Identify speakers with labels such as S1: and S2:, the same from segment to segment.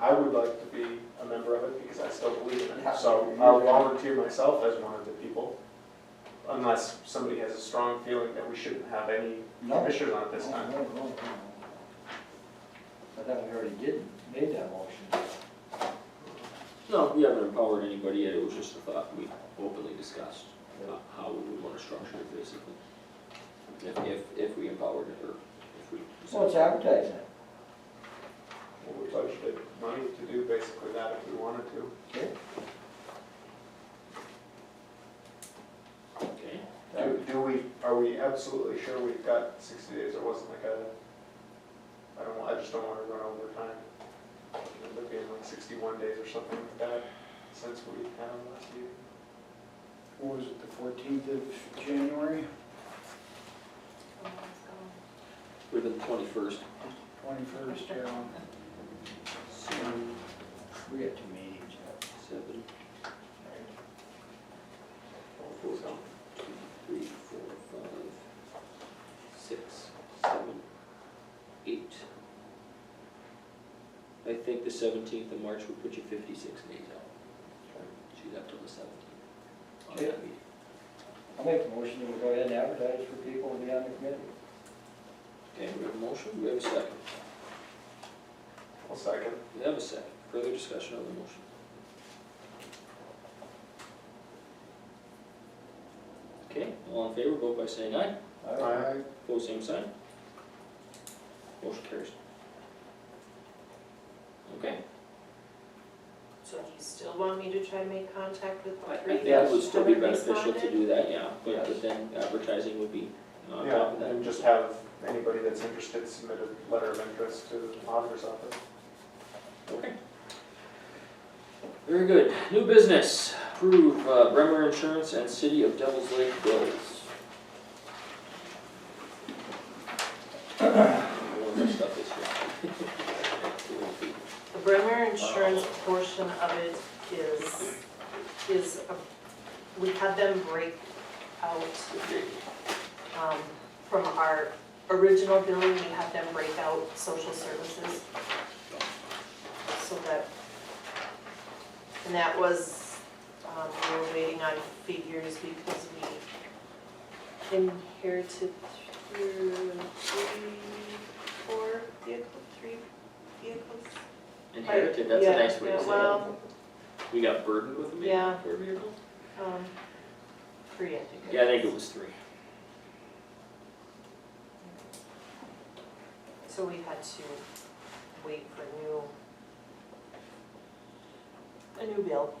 S1: I would like to be a member of it because I still believe in
S2: Yeah.
S1: it. So I'll volunteer myself as one of the people, unless somebody has a strong feeling that we shouldn't have any
S2: No.
S1: commissioners on it this
S2: No,
S1: time.
S2: no, no, no, no. I thought we already did, made that motion.
S3: No, we haven't empowered anybody yet, it was just a thought we openly discussed, uh, how we would wanna structure it basically. If, if, if we empowered it, or if we.
S2: So it's advertising.
S1: Well, We budgeted money to do basically that if we wanted to.
S3: Okay.
S1: Do, do we, are we absolutely sure we've got sixty days, or wasn't like a, I don't, wa- I just don't wanna run over time. It would be like sixty-one days or something like that, since we had them last year.
S4: What was it, the fourteenth of January,
S3: Would've been the twenty-first.
S4: twenty-first, yeah.
S3: Seven.
S2: We got two meetings.
S3: Seven, four,
S1: So,
S3: two, three, four, five, six, seven, eight. I think the seventeenth of March would put you fifty-six days out. She's up till the seventeenth. On that meeting.
S2: I'll make the motion that we go ahead and advertise for people to be on the committee.
S3: Okay, we have a motion, we have a second.
S1: I'll second.
S3: We have a second. Further discussion on the motion? Okay, all in favor, vote by saying aye.
S2: All right.
S3: Pose same sign. Motion carries. Okay,
S5: So do you still want me to try and make contact with
S3: I I
S5: what
S3: think
S5: readers
S3: that would still be
S5: haven't
S3: beneficial to
S5: responded?
S3: do that, yeah, but but then advertising would be on top
S1: Yeah,
S3: of that.
S1: and just have anybody that's interested submit a letter of interest to the auditor's office.
S3: Okay. Very good. New business, approve uh, Bremer Insurance and City of Devils Lake bills. One of our stuff is here.
S5: The Bremer insurance portion of it is, is, a- we had them break out um, from our original billing, we had them break out social services. So that, and that was, um, we were waiting on figures because we inherited through three, four vehicle, three vehicles.
S3: Inherited, that's a
S5: Yeah,
S3: nice way to
S5: yeah,
S3: say it.
S5: Well,
S3: We got burdened with a vehicle.
S5: Yeah.
S3: Or vehicle?
S5: um, three, I think.
S3: Yeah, I think it was three.
S5: So we had to wait for new, a new bill.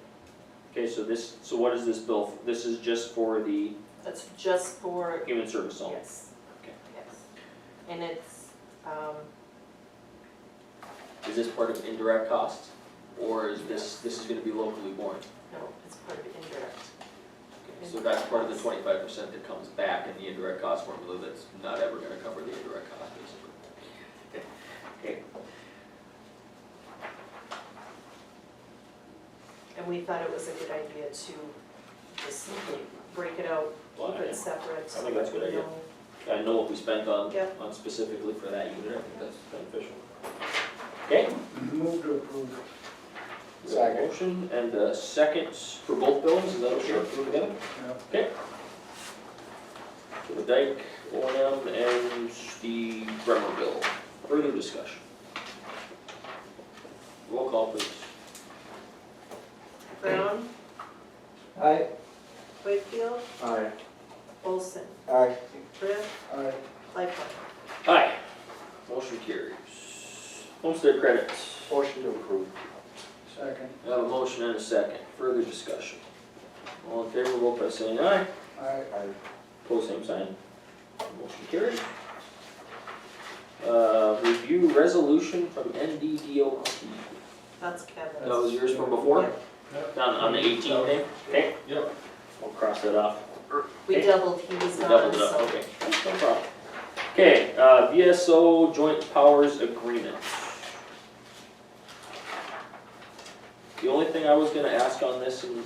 S3: Okay, so this, so what is this bill? This is just for the
S5: That's just for,
S3: human service only?
S5: yes.
S3: Okay.
S5: Yes. And it's, um,
S3: Is this part of indirect costs? Or is this, this is gonna be locally borne?
S5: no, it's part of indirect.
S3: Okay, So that's part of the twenty-five percent that comes back in the indirect cost formula that's not ever gonna cover the indirect cost, basically.
S5: And we thought it was a good idea to just break it out,
S3: Well,
S5: keep it separate. so
S3: I think that's a good
S5: that we
S3: idea.
S5: know.
S3: I know what we spent on,
S5: Yeah.
S3: on specifically for that unit, I think that's beneficial. Okay?
S4: Move to approve.
S3: we have a Motion and a second for both bills, is that okay?
S4: Sure.
S3: Move together?
S4: Yeah.
S3: For the dike, O and M, and the Bremer bill. Further discussion? Roll call, please.
S5: Brown,
S2: Aye.
S5: Wakefield,
S1: Aye.
S5: Olson,
S2: Aye.
S5: Brett,
S4: Aye.
S5: Lightfoot.
S3: Aye. Motion carries. Homestead credits.
S2: Motion to approve.
S4: Second.
S3: I have a motion and a second, further discussion. All in favor, vote by saying aye,
S4: Aye.
S3: pose same sign, motion carried. Uh, review resolution from NDDO.
S5: That's
S3: That
S5: Kevin.
S3: was yours from before, on, on the eighteen thing, okay?
S1: Yep.
S3: We'll cross that off.
S5: We doubled, he was
S3: We
S5: gone,
S3: doubled it up,
S5: so
S3: okay, no problem. Okay, uh, VSO joint powers agreement. The only thing I was gonna ask on this, and